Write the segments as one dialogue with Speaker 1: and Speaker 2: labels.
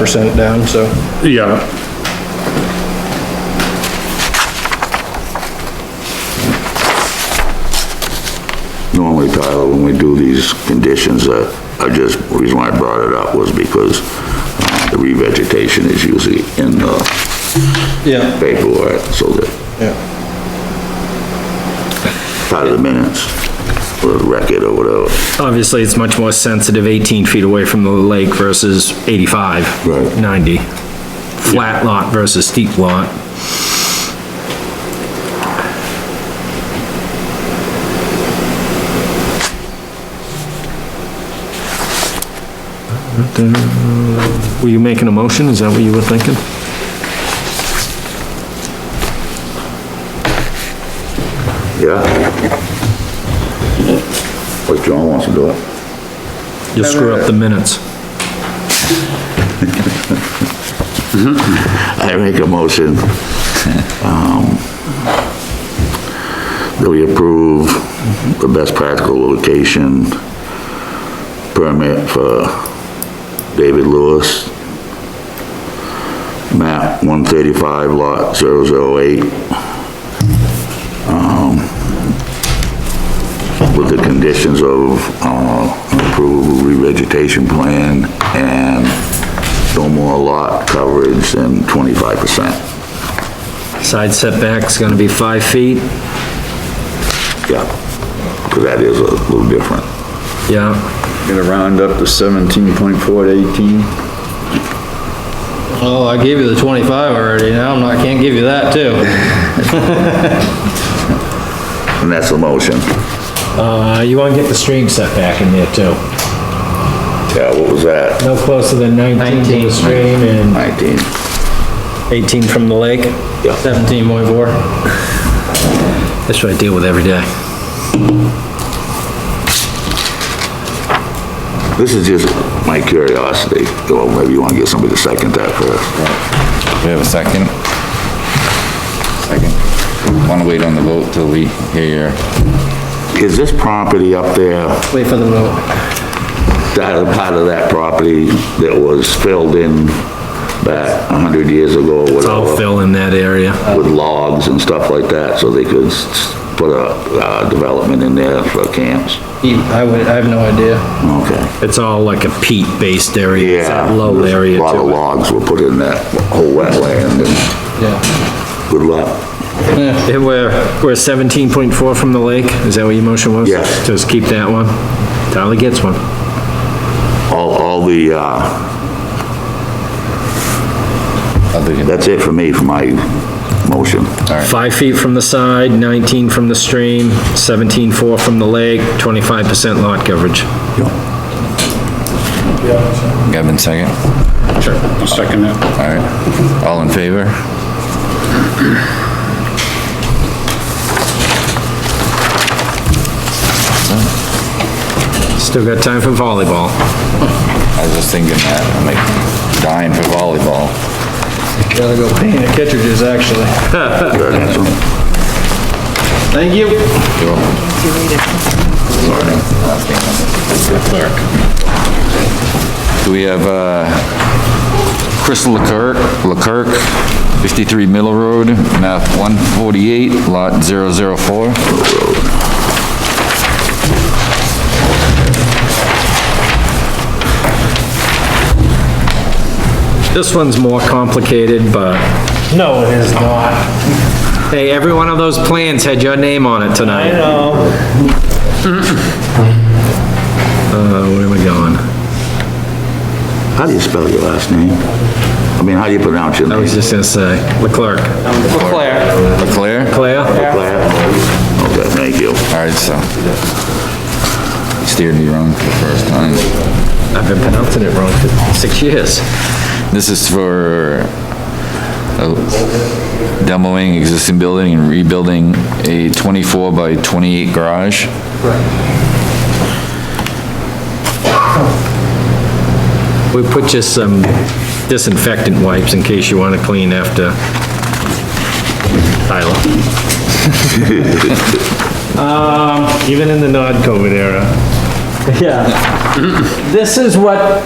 Speaker 1: percent down, so.
Speaker 2: Yeah,
Speaker 3: Normally, Tyler, when we do these conditions, uh, I just, the reason why I brought it up was because uh, the revegetation is usually in the
Speaker 1: Yeah.
Speaker 3: paperwork, so that
Speaker 1: Yeah.
Speaker 3: part of the minutes, or the record or whatever.
Speaker 4: Obviously, it's much more sensitive 18 feet away from the lake versus 85.
Speaker 3: Right.
Speaker 4: 90. Flat lot versus steep lot. Were you making a motion? Is that what you were thinking?
Speaker 3: Yeah? Like John wants to do it.
Speaker 4: You'll screw up the minutes.
Speaker 3: I make a motion, um, that we approve the best practical location permit for David Lewis, map one thirty-five lot 008. um, With the conditions of, uh, approved revegetation plan and no more lot coverage than twenty-five percent.
Speaker 4: Side setback's gonna be five feet.
Speaker 3: Yeah, because that is a little different.
Speaker 4: Yeah,
Speaker 5: Gonna round up to seventeen point four to eighteen.
Speaker 1: Oh, I gave you the twenty-five already, now I'm not, I can't give you that too.
Speaker 3: And that's a motion.
Speaker 4: uh, you wanna get the stream setback in there too.
Speaker 3: Yeah, what was that?
Speaker 4: No closer than 19 to the stream and...
Speaker 3: Nineteen.
Speaker 4: 18 from the lake?
Speaker 1: Seventeen point four.
Speaker 4: That's what I deal with every day.
Speaker 3: This is just my curiosity. Well, maybe you want to get somebody to second that first.
Speaker 6: We have a second? Second. Want to wait on the vote till we hear your,
Speaker 3: Is this property up there,
Speaker 1: Wait for the vote.
Speaker 3: that a part of that property that was filled in back a hundred years ago or
Speaker 4: I'll
Speaker 3: whatever?
Speaker 4: fill in that area.
Speaker 3: With logs and stuff like that, so they could s- put a, uh, development in there for camps?
Speaker 1: He- I would, I have no idea.
Speaker 3: Okay.
Speaker 4: It's all like a peat-based area, it's
Speaker 3: Yeah.
Speaker 4: that low area
Speaker 3: A lot of
Speaker 4: to it.
Speaker 3: logs were put in that whole wetland and
Speaker 1: Yeah.
Speaker 3: good luck.
Speaker 4: Yeah, We're, we're 17.4 from the lake, is that what your motion was?
Speaker 3: Yes.
Speaker 4: Just keep that one. Tyler gets one.
Speaker 3: All, all the, uh,
Speaker 6: other than, all
Speaker 3: that's it for me, for my motion.
Speaker 6: right,
Speaker 4: Five feet from the side, 19 from the stream, 17.4 from the lake, 25% lot coverage.
Speaker 6: Gavin, second?
Speaker 2: sure, I'll second that.
Speaker 6: All right. All in favor?
Speaker 4: Still got time for volleyball.
Speaker 6: I was just thinking that, I'm like dying for volleyball.
Speaker 1: Gotta go paint the cartridges, actually. Thank you.
Speaker 6: Do we have, uh, Chris Leclerc, Leclerc, 53 Middle Road, map 148, lot 004?
Speaker 4: This one's more complicated, but... No, it is not. Hey, every one of those plans had your name on it tonight. I know. Uh, where am I going?
Speaker 3: How do you spell your last name? I mean, how do you pronounce your
Speaker 4: I
Speaker 3: name?
Speaker 4: was just gonna say, Leclerc.
Speaker 6: Leclerc? All
Speaker 4: Claire?
Speaker 3: Claire? Okay, thank you.
Speaker 6: right, so. Steered me wrong for the first time.
Speaker 4: I've been pronouncing it wrong for six years.
Speaker 6: This is for uh, demoing existing building and rebuilding a 24 by 28 garage.
Speaker 4: We put just some disinfectant wipes in case you wanna clean after Tyler. Um, Even in the non-COVID era.
Speaker 7: Yeah. This is what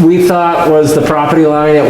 Speaker 4: we thought was the property line at